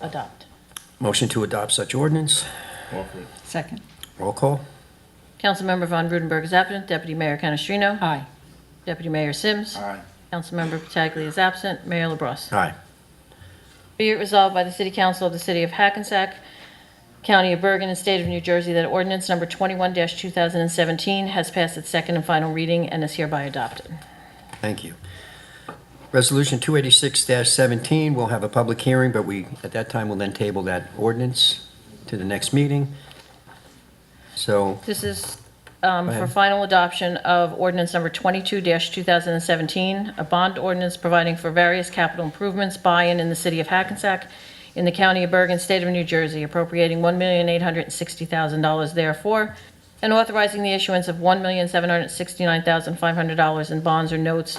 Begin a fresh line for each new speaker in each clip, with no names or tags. adopt.
Motion to adopt such ordinance.
Offer it.
Second.
Roll call.
Councilmember Von Rudenberg is absent. Deputy Mayor Canestrino?
Aye.
Deputy Mayor Sims?
Aye.
Councilmember Pataglia is absent. Mayor LaBrus.
Aye.
Be it resolved by the City Council of the City of Hackensack, County of Bergen, and State of New Jersey that ordinance number 21-2017 has passed its second and final reading and is hereby adopted.
Thank you. Resolution 286-17, we'll have a public hearing, but we, at that time, will then table that ordinance to the next meeting. So,
This is um,
Go
for
ahead.
final adoption of ordinance number 22-2017, a bond ordinance providing for various capital improvements buy-in in the city of Hackensack, in the county of Bergen, state of New Jersey, appropriating $1,860,000 therefore, and authorizing the issuance of $1,769,500 in bonds or notes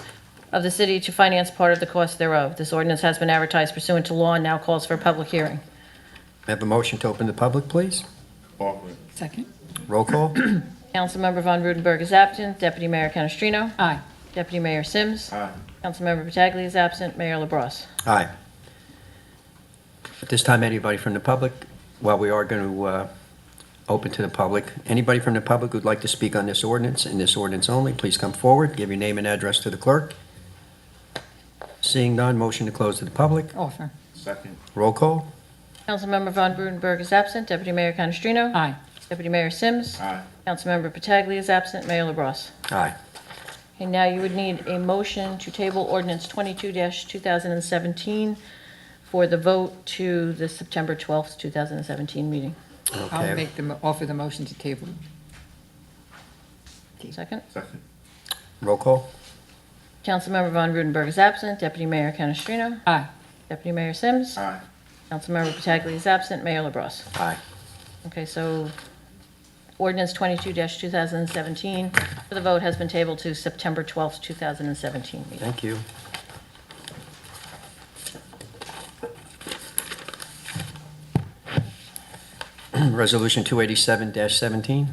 of the city to finance part of the cost thereof. This ordinance has been advertised pursuant to law and now calls for a public hearing.
may I have a motion to open the public, please?
Offer it.
Second.
Roll call.
Councilmember Von Rudenberg is absent. Deputy Mayor Canestrino?
Aye.
Deputy Mayor Sims?
Aye.
Councilmember Pataglia is absent. Mayor LaBrus.
Aye. At this time, anybody from the public, while we are going to open to the public, anybody from the public who'd like to speak on this ordinance and this ordinance only, please come forward, give your name and address to the clerk. Seeing none, motion to close to the public.
Offer.
Second.
Roll call.
Councilmember Von Rudenberg is absent. Deputy Mayor Canestrino?
Aye.
Deputy Mayor Sims?
Aye.
Councilmember Pataglia is absent. Mayor LaBrus.
Aye.
And now you would need a motion to table ordinance 22-2017 for the vote to the September 12th, 2017 meeting.
I'll
Okay.
make the, mo- offer the motion to table.
Second.
Second.
Roll call.
Councilmember Von Rudenberg is absent. Deputy Mayor Canestrino?
Aye.
Deputy Mayor Sims?
Aye.
Councilmember Pataglia is absent. Mayor LaBrus.
Aye.
Okay, so ordinance 22-2017 for the vote has been tabled to September 12th, 2017 meeting.
Thank you. Resolution 287-17.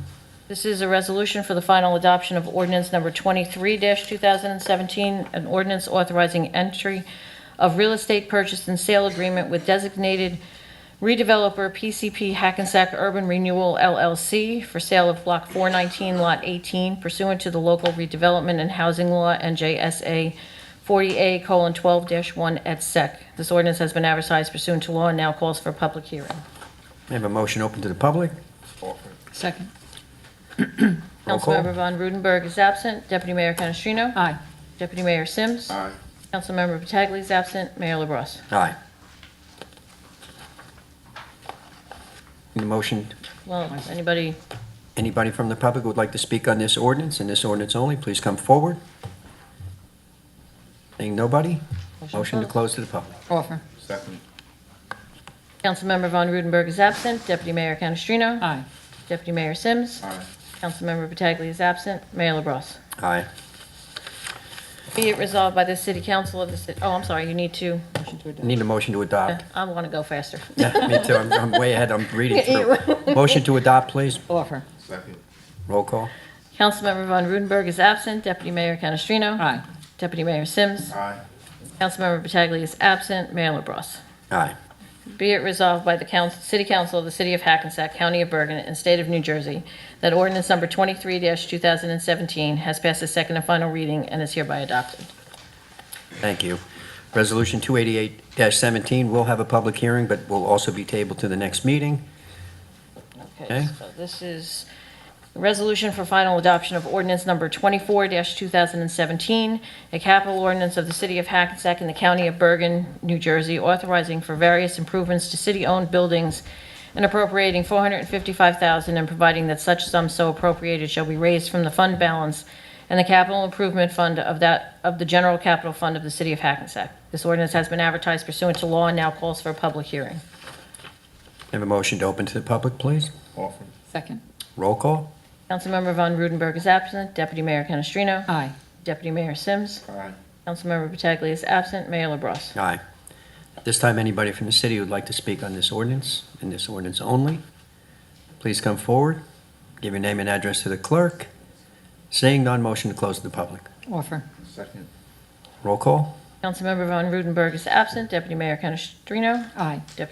This is a resolution for the final adoption of ordinance number 23-2017, an ordinance authorizing entry of real estate purchase and sale agreement with designated redeveloper PCP Hackensack Urban Renewal LLC for sale of Block 419, Lot 18 pursuant to the local redevelopment and housing law and JSA 40A:12-1 et sec. This ordinance has been advertised pursuant to law and now calls for a public hearing.
May I have a motion open to the public?
Offer it.
Second.
Roll call.
Councilmember Von Rudenberg is absent. Deputy Mayor Canestrino?
Aye.
Deputy Mayor Sims?
Aye.
Councilmember Pataglia is absent. Mayor LaBrus.
Aye. Need a motion,
Well, anybody,
anybody from the public who would like to speak on this ordinance and this ordinance only, please come forward. Seeing nobody?
Motion to
Motion to
close.
close to the public.
Offer.
Second.
Councilmember Von Rudenberg is absent. Deputy Mayor Canestrino?
Aye.
Deputy Mayor Sims?
Aye.
Councilmember Pataglia is absent. Mayor LaBrus.
Aye.
Be it resolved by the City Council of the city, oh, I'm sorry, you need to,
Motion to adopt.
Need a motion to adopt.
I want to go faster.
Yeah, me too, I'm, I'm way ahead, I'm reading through. Motion to adopt, please.
Offer.
Second.
Roll call.
Councilmember Von Rudenberg is absent. Deputy Mayor Canestrino?
Aye.
Deputy Mayor Sims?
Aye.
Councilmember Pataglia is absent. Mayor LaBrus.
Aye.
Be it resolved by the council, City Council of the City of Hackensack, County of Bergen, and State of New Jersey that ordinance number 23-2017 has passed its second and final reading and is hereby adopted.
Thank you. Resolution 288-17 will have a public hearing, but will also be tabled to the next meeting.
Okay,
Okay.
so this is a resolution for final adoption of ordinance number 24-2017, a capital ordinance of the City of Hackensack and the County of Bergen, New Jersey, authorizing for various improvements to city-owned buildings and appropriating 455000 and providing that such sum so appropriated shall be raised from the fund balance and the capital improvement fund of that, of the general capital fund of the City of Hackensack. This ordinance has been advertised pursuant to law and now calls for a public hearing.
Have a motion to open to the public, please.
Offer it.
Second.
Roll call.
Councilmember Von Rudenberg is absent. Deputy Mayor Canestrino?
Aye.
Deputy Mayor Sims.
Aye.
Councilmember Pataglia is absent. Mayor LaBrus.
Aye. At This time, anybody from the city who'd like to speak on this ordinance and this ordinance only, please come forward, give your name and address to the clerk. Seeing none, motion to close to the public.
Offer.
Second.
Roll call.
Councilmember Von Rudenberg is absent. Deputy Mayor Canestrino.
Aye.